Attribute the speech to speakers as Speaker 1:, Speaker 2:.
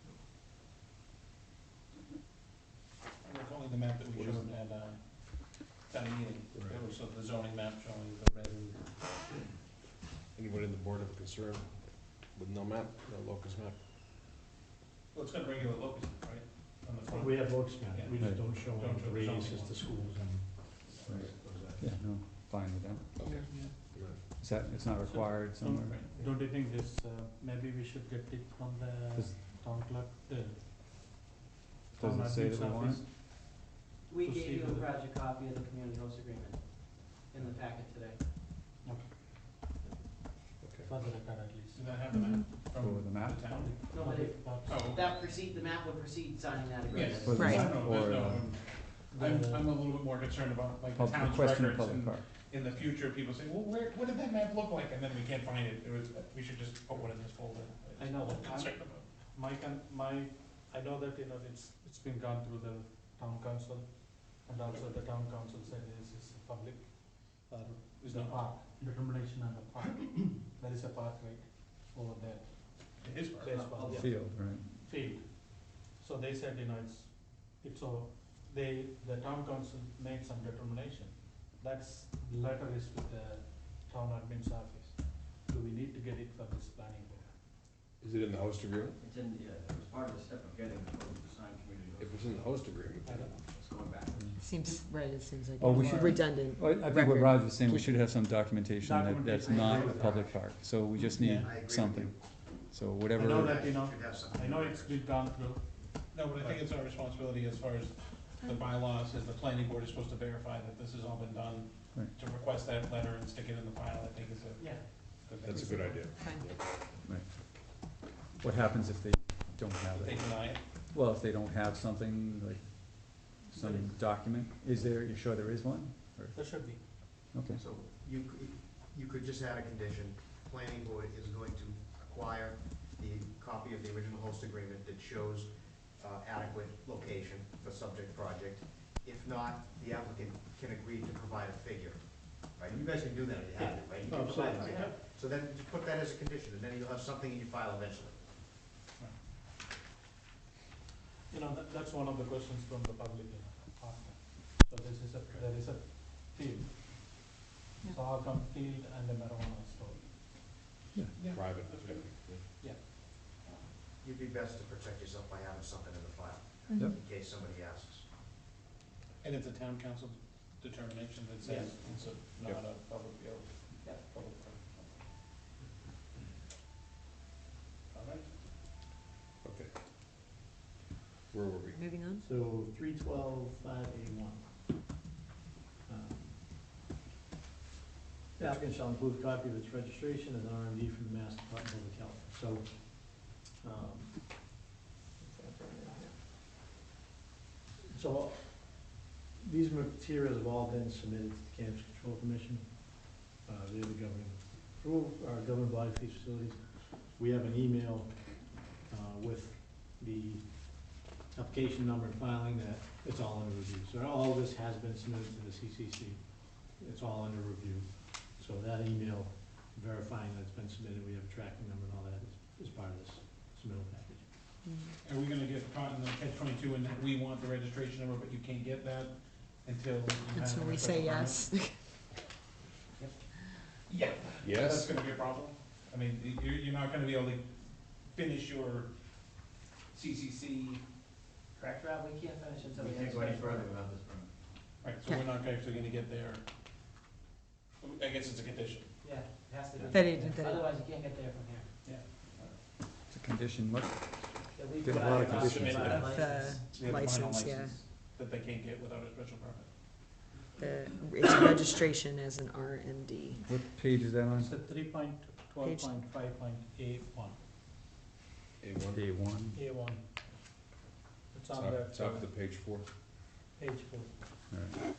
Speaker 1: uh,
Speaker 2: concern with no map, no locus map.
Speaker 1: Well, it's got regular locusts, right, on the front.
Speaker 3: We have locust map, we just
Speaker 4: Right.
Speaker 3: don't show
Speaker 1: Don't
Speaker 3: any
Speaker 1: show the
Speaker 3: trees,
Speaker 1: zoning
Speaker 3: just
Speaker 1: one.
Speaker 3: the schools and.
Speaker 1: Right.
Speaker 3: those are-
Speaker 4: Yeah, no, fine with that.
Speaker 2: Okay.
Speaker 5: Yeah.
Speaker 2: Right.
Speaker 4: Is that, it's not required somewhere?
Speaker 1: Right.
Speaker 5: Don't you think this, uh, maybe we should get it from the
Speaker 4: Does-
Speaker 5: town clerk, the
Speaker 4: Does
Speaker 5: town
Speaker 4: it say
Speaker 5: admin's
Speaker 4: that we want
Speaker 5: office?
Speaker 4: it?
Speaker 6: We
Speaker 5: Proceed
Speaker 6: gave you a
Speaker 5: with it.
Speaker 6: project copy of the community host agreement in the packet today.
Speaker 5: For the record at least.
Speaker 1: Does that have the
Speaker 7: Mm-hmm.
Speaker 1: map
Speaker 4: Or
Speaker 1: from
Speaker 4: the
Speaker 1: the
Speaker 4: map?
Speaker 1: town?
Speaker 6: No, but it,
Speaker 1: Oh, okay.
Speaker 6: that precede, the map would precede signing that agreement.
Speaker 1: Yes.
Speaker 4: For the
Speaker 8: Right.
Speaker 4: map
Speaker 1: No, no,
Speaker 4: or
Speaker 1: there's no-
Speaker 4: the
Speaker 1: I'm, I'm a little bit more concerned about like the
Speaker 4: pub- the
Speaker 1: town's
Speaker 4: question of
Speaker 1: records
Speaker 4: public
Speaker 1: and
Speaker 4: art?
Speaker 1: in the future, people say, well, where, what did that map look like? And then we can't find it. It was, we should just put one in this folder.
Speaker 5: I know,
Speaker 1: That's what I'm
Speaker 5: I'm-
Speaker 1: concerned about.
Speaker 5: My con, my, I know that, you know, it's, it's been gone through the town council, and also the town council said this is a public, uh, is a
Speaker 1: No.
Speaker 5: park, determination on the park. There is a park right over there,
Speaker 1: It is part of
Speaker 5: place
Speaker 1: it.
Speaker 5: park,
Speaker 4: Field, right?
Speaker 5: field. So they said, you know, it's, it's all, they, the town council made some determination. That's, letter is with the town admin's office. Do we need to get it for this planning board?
Speaker 2: Is it in the host agreement?
Speaker 7: It's in, yeah, it was part of the step of getting the vote to sign community.
Speaker 2: If it's in the host agreement,
Speaker 5: I don't know.
Speaker 7: It's going back.
Speaker 8: Seems, right, it seems like
Speaker 4: Oh, we
Speaker 8: it's
Speaker 4: should-
Speaker 8: redundant.
Speaker 4: Well, I think what
Speaker 8: Record.
Speaker 4: Raj was saying, we should have some documentation that that's
Speaker 5: Documentation.
Speaker 4: not a public park, so we just need
Speaker 5: Yeah.
Speaker 7: I agree with
Speaker 4: something. So
Speaker 5: I know
Speaker 4: whatever,
Speaker 5: that, you know,
Speaker 7: Should have something
Speaker 5: I know
Speaker 7: in
Speaker 5: it's
Speaker 7: there.
Speaker 5: been gone through,
Speaker 1: No, but I think it's our responsibility as far as the bylaws, is the planning board is supposed to verify that this has all been done.
Speaker 4: Right.
Speaker 1: To request that letter and stick it in the file, I think is a
Speaker 6: Yeah,
Speaker 1: good thing.
Speaker 2: that's a good idea.
Speaker 8: Fine.
Speaker 4: what happens if they don't have
Speaker 1: If they
Speaker 4: it?
Speaker 1: deny it,
Speaker 4: Well, if they don't have something, like, some document, is there, you sure there is one?
Speaker 5: there should be.
Speaker 4: Okay.
Speaker 7: So you, could- you could just add a condition, planning board is going to acquire the copy of the original host agreement that shows uh, adequate location for subject project. If not, the applicant can agree to provide a figure, right? You guys can do that if you have it, right? You can provide a figure. So then just put that as a condition, and then you'll have something in your file eventually.
Speaker 5: You know, that, that's one of the questions from the public, you know, after. So this is a, there is a field.
Speaker 8: Yeah.
Speaker 5: So how come field and a marijuana store?
Speaker 2: Private.
Speaker 7: You'd be best to protect yourself by having something in the file,
Speaker 4: Yep.
Speaker 7: in case somebody asks.
Speaker 1: and it's a town council determination that says it's a, not a public, you
Speaker 6: Yeah.
Speaker 1: public. All right.
Speaker 2: Okay. Where were we?
Speaker 8: Moving on.
Speaker 3: So three twelve, five eighty-one. The applicant shall include a copy of its registration as an RMD from the Mass Department of Health, so. um, So these materials have all been submitted to the Cannabis Control Commission. Uh, They're the governing, approve, our governing body for these facilities. We have an email uh, with the application number and filing that it's all under review. So all of this has been submitted to the CCC. It's all under review. So that email verifying that it's been submitted, we have a tracking number and all that is, is part of this submittal package.
Speaker 1: Mm-hmm. Are we gonna get caught in the catch twenty-two in that we want the registration number, but you can't get that until you
Speaker 8: And
Speaker 1: have
Speaker 8: so
Speaker 1: a
Speaker 8: we
Speaker 1: special permit?
Speaker 8: say yes.
Speaker 1: Yeah, that's
Speaker 2: Yes?
Speaker 1: gonna be a problem. I mean, y- you're, you're not gonna be able to finish your CCC, correct?
Speaker 6: Rob, we can't finish until
Speaker 7: We
Speaker 6: we have.
Speaker 7: can't go any further without this permit.
Speaker 1: Right, so we're not actually gonna get there. I guess it's a condition.
Speaker 6: Yeah, it has to be.
Speaker 8: That it- that it-
Speaker 6: Otherwise, you can't get there from here.
Speaker 4: It's a condition, what,
Speaker 6: That we've
Speaker 4: There's a
Speaker 6: got
Speaker 4: lot of
Speaker 6: about
Speaker 4: conditions
Speaker 6: five
Speaker 1: there.
Speaker 8: Of
Speaker 6: licenses.
Speaker 8: the
Speaker 1: We have a final
Speaker 8: License, yeah.
Speaker 1: license That they can't get without a special permit.
Speaker 8: the, its registration as an RMD.
Speaker 4: what page is that on?
Speaker 5: It's a three point, twelve
Speaker 8: Page-
Speaker 5: point, five point, A one,
Speaker 2: A one,
Speaker 4: A one.
Speaker 5: A one. It's on
Speaker 2: top,
Speaker 5: the
Speaker 2: top of the page four.
Speaker 5: page four.
Speaker 4: All right.